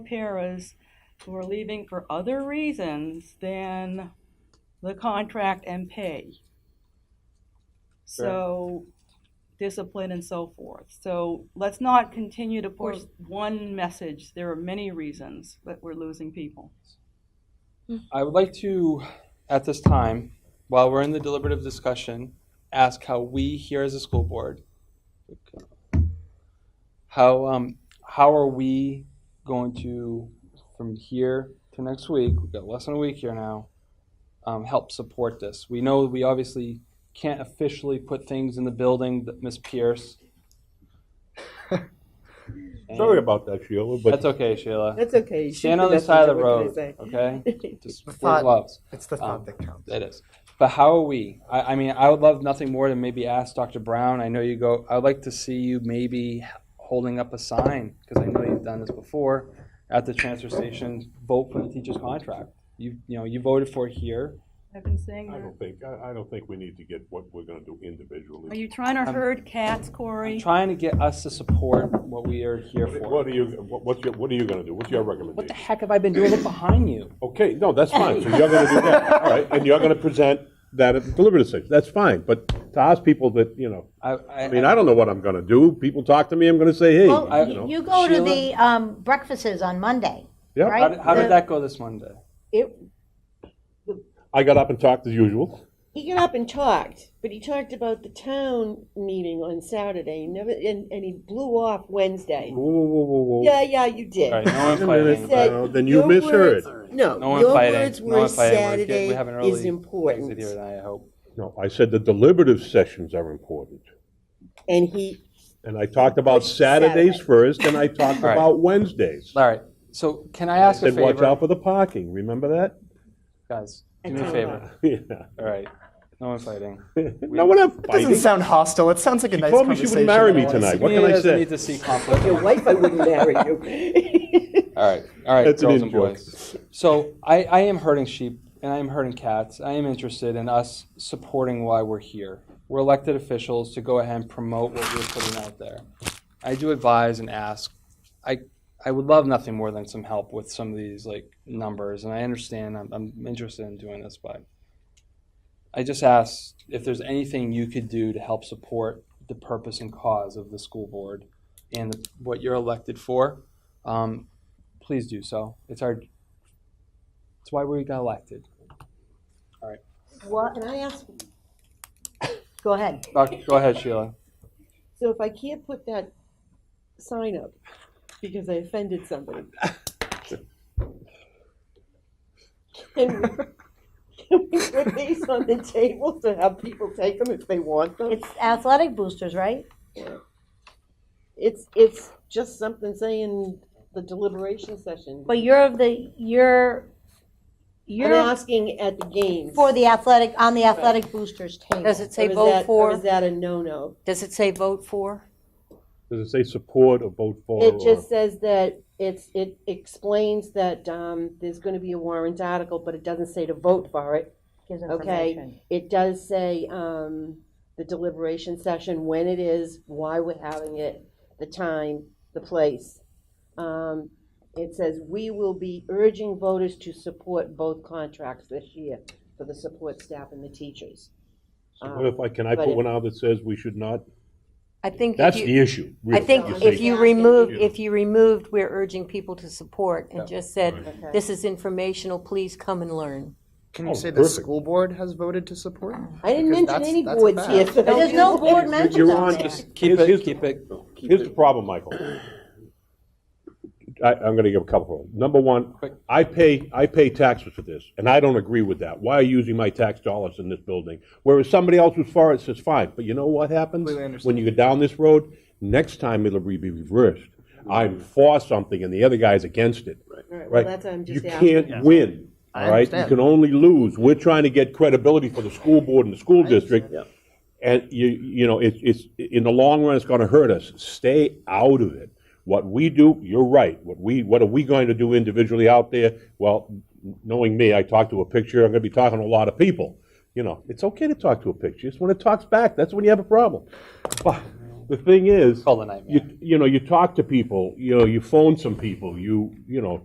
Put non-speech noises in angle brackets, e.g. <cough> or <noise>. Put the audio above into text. paras who are leaving for other reasons than the contract and pay. So discipline and so forth. So let's not continue to push one message. There are many reasons that we're losing people. I would like to, at this time, while we're in the deliberative discussion, ask how we here as a school board, how um, how are we going to, from here to next week, we've got less than a week here now, um, help support this? We know we obviously can't officially put things in the building that Miss Pierce. Sorry about that, Sheila, That's but okay, Sheila. That's okay. You Stand should on the listen side to of the what they road, say. <laughs> okay? Just wear thought- gloves. It's the thought thought Um, that counts. It is. But how are we? I, I mean, I would love nothing more than maybe ask Dr. Brown. I know you go, I would like to see you maybe holding up a sign, because I know you've done this before, at the transfer station, vote for the teacher's contract. You, you know, you voted for it here. I've been saying I that. don't think, I, I don't think we need to get what we're gonna do Are individually. you trying to I'm- herd cats, I'm Corey? trying to get us to support what we are here What for. are you, what- what's your, what are you gonna do? What's your What the recommendation? heck have I been doing? Look behind you. Okay, no, that's fine, so you're gonna do that, all right, and you're gonna present that at the deliberative session, that's fine, but to ask people that, you know, I, I mean, I don't know what I'm gonna do, people talk to me, I'm gonna say, hey, Well, I- you you- know. you go to Sheila? the um, breakfasts on Monday, Yeah. How right? did, how The- did that go this Monday? It, I got up and talked as usual. he got up and talked, but he talked about the town meeting on Saturday. He never and, and he blew off Wednesday. Whoa, whoa, whoa, whoa, whoa. Yeah, yeah, you did. All right, no Wait a one fighting. minute. He said, Well, then you your misheard. words- No, No one your fighting. words no were one fighting. We're getting- Saturday we have an early is important, exit here tonight, I hope. No, I said the deliberative sessions are important. and he And I talked about Saturdays Saturday. first, and I talked All right. about Wednesdays. All right. So can I ask a Said, watch favor, out for the parking, remember that? <laughs> guys? Do me a favor. Yeah. All right. No one fighting. No, we're not It doesn't fighting. sound hostile. It sounds like a nice told me she would conversation. marry that me I wanna tonight. see. What can I doesn't say? need to see conflict. your wife I wouldn't marry you. All right. All right, That's an girls and in-joke. boys. So I, I am herding sheep and I am herding cats. I am interested in us supporting why we're here. We're elected officials to go ahead and promote what we're putting out there. I do advise and ask. I I would love nothing more than some help with some of these like numbers, and I understand I'm, I'm interested in doing this, but I just ask if there's anything you could do to help support the purpose and cause of the school board and what you're elected for. Um, please do so. It's our, it's why we got elected. What, can I ask? Go ahead. Doc, go ahead, Sheila. so if I can't put that sign up because I offended somebody. Can we, can we put these on the table to have people take them if they want them? It's athletic boosters, right? It's, it's just something saying the deliberation session. But you're of the, you're, I'm you're asking at the games. for the athletic, on the athletic boosters table. Does it say Or is vote that- Or is for? that a no-no? Does it say vote for? Does it say support or vote for? It or- just says that it's, it explains that, um, there's gonna be a warrant article, but it doesn't say to vote for it. Gives information. Okay, it does say, um, the deliberation session, when it is, why we're having it, the time, the place. Um, it says, we will be urging voters to support both contracts this year for the support staff and the teachers. So What if I, can I But put it- one out that says we should not? I think That's if you, the issue. I really, think is if they- you Yeah. removed, Yeah. if you removed, we're urging people to support Yeah. and just said, Okay. this is informational, please come and learn. Can Oh, you say the perfect. school board has voted to support? I Because didn't mention that's- any that's boards bad. here. so But there's no board mentioned You're on on, there. just- Keep here's- it, here's- keep it. Here's the problem, Michael. I, I'm gonna give a couple of them. Number one, Quick. I pay, I pay taxes for this, and I don't agree with that. Why are you using my tax dollars in this building? Whereas somebody else who's for it says, fine, but you know what happens? Completely understand. When you go down this road, next time it'll be reversed. I'm for something and the other guy's against it. Right, well, Right? that's what I'm You just asking. can't win, I all right? You understand. can only lose. We're trying to get credibility for the school board and the school district. And you, you know, it's, it's, in the long run, it's gonna hurt us. Stay out of it. What we do, you're right. What we, what are we going to do individually out there? Well, knowing me, I talk to a picture, I'm gonna be talking to a lot of people. You know, it's okay to talk to a picture. It's when it talks back, that's when you have a problem. But the thing is, Call the nightmare. you, you know, you talk to people, you know, you phone some people, you, you know,